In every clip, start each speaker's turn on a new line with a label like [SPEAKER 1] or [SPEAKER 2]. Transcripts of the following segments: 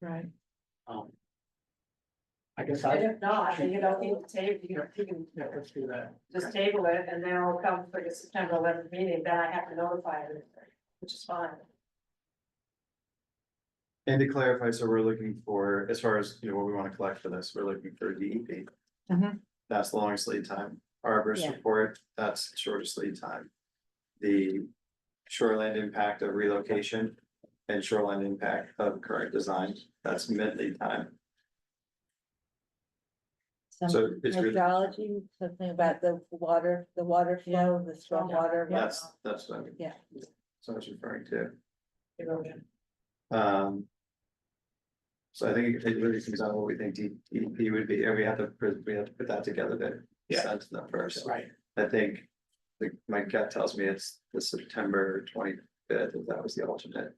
[SPEAKER 1] Right.
[SPEAKER 2] Um. I guess
[SPEAKER 3] And
[SPEAKER 2] I,
[SPEAKER 3] if not, then you don't need to table, you know, you can
[SPEAKER 2] yeah, let's do that.
[SPEAKER 3] just table it and then it'll come for the September eleventh meeting, then I have to notify them, which is fine.
[SPEAKER 4] And to clarify, so we're looking for, as far as, you know, what we wanna collect for this, we're looking for DEP.
[SPEAKER 1] Mhm.
[SPEAKER 4] That's the longest lead time, arborist
[SPEAKER 1] Yeah.
[SPEAKER 4] report, that's the shortest lead time. The shoreland impact of relocation and shoreline impact of current design, that's mid lead time,
[SPEAKER 1] Some
[SPEAKER 4] so it's really,
[SPEAKER 1] hydrology, something about the water, the water flow, the stormwater.
[SPEAKER 4] that's, that's what I'm.
[SPEAKER 1] Yeah.
[SPEAKER 4] that's what I was referring to.
[SPEAKER 3] Erosion.
[SPEAKER 4] Um. So I think it really comes down to what we think DEP would be, and we have to, put- we have to put that together then.
[SPEAKER 2] Yeah.
[SPEAKER 4] Send them first,
[SPEAKER 2] Right,
[SPEAKER 4] I think, like, my gut tells me it's the September twenty fifth, if that was the alternate,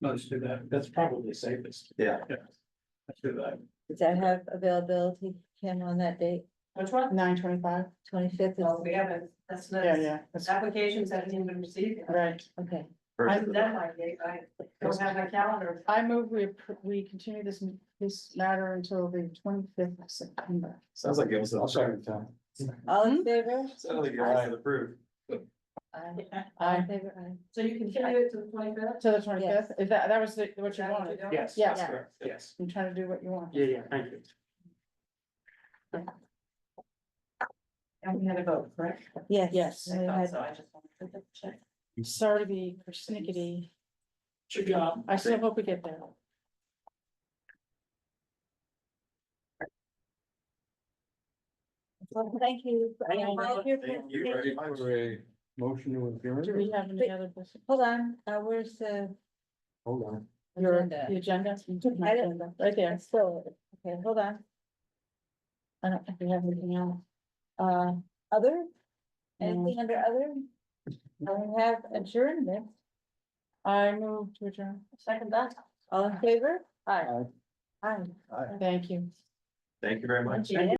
[SPEAKER 2] let's do that. That's probably safest.
[SPEAKER 4] yeah.
[SPEAKER 2] Yeah. Let's do that.
[SPEAKER 1] Does that have availability, Kim, on that date,
[SPEAKER 3] Which one?
[SPEAKER 5] Nine twenty-five?
[SPEAKER 1] twenty-fifth?
[SPEAKER 3] No, we haven't, that's not,
[SPEAKER 5] Yeah, yeah, that's
[SPEAKER 3] applications haven't even been received. yet.
[SPEAKER 5] right.
[SPEAKER 1] Okay,
[SPEAKER 4] First of the-
[SPEAKER 3] That might be, I don't have my calendar.
[SPEAKER 5] I move we, appro- we continue this, this matter until the twenty-fifth of September.
[SPEAKER 4] Sounds like it was.
[SPEAKER 2] I'll second that.
[SPEAKER 1] all in favor?
[SPEAKER 4] Sounds like it was approved,
[SPEAKER 1] Aye. All in
[SPEAKER 5] Aye.
[SPEAKER 1] favor, aye.
[SPEAKER 3] So you can continue it to the twenty fifth?
[SPEAKER 5] To the twenty-fifth, if that, that was the- what you wanted,
[SPEAKER 2] Yes.
[SPEAKER 5] Yeah.
[SPEAKER 2] that's correct. Yes.
[SPEAKER 5] I'm trying to do what you want.
[SPEAKER 2] Yeah, yeah, thank you.
[SPEAKER 3] And we had a vote, correct?
[SPEAKER 1] Yes.
[SPEAKER 5] Yes.
[SPEAKER 1] we
[SPEAKER 3] I thought
[SPEAKER 1] had-
[SPEAKER 3] so, I just wanted to double check.
[SPEAKER 5] Sorry to be persnickety,
[SPEAKER 2] Good job.
[SPEAKER 5] I still hope we get there.
[SPEAKER 1] Well, thank you. I invite you for-
[SPEAKER 4] thank you very much.
[SPEAKER 2] a motion to
[SPEAKER 5] Do we have any other? business?
[SPEAKER 1] Hold on, uh, where's the?
[SPEAKER 2] Hold on.
[SPEAKER 5] Your,
[SPEAKER 1] agenda?
[SPEAKER 5] the agenda, Mm-hmm.
[SPEAKER 1] I didn't-
[SPEAKER 5] right there.
[SPEAKER 1] It's still, okay, hold on.
[SPEAKER 5] I don't think we have anything else.
[SPEAKER 1] Uh, other?
[SPEAKER 5] No.
[SPEAKER 1] Anything under other? I have adjournment,
[SPEAKER 5] I move to adjourn.
[SPEAKER 3] Second that.
[SPEAKER 1] all in favor?
[SPEAKER 5] Aye,
[SPEAKER 1] Aye.
[SPEAKER 5] thank you.
[SPEAKER 4] Thank you very much.
[SPEAKER 1] Yeah.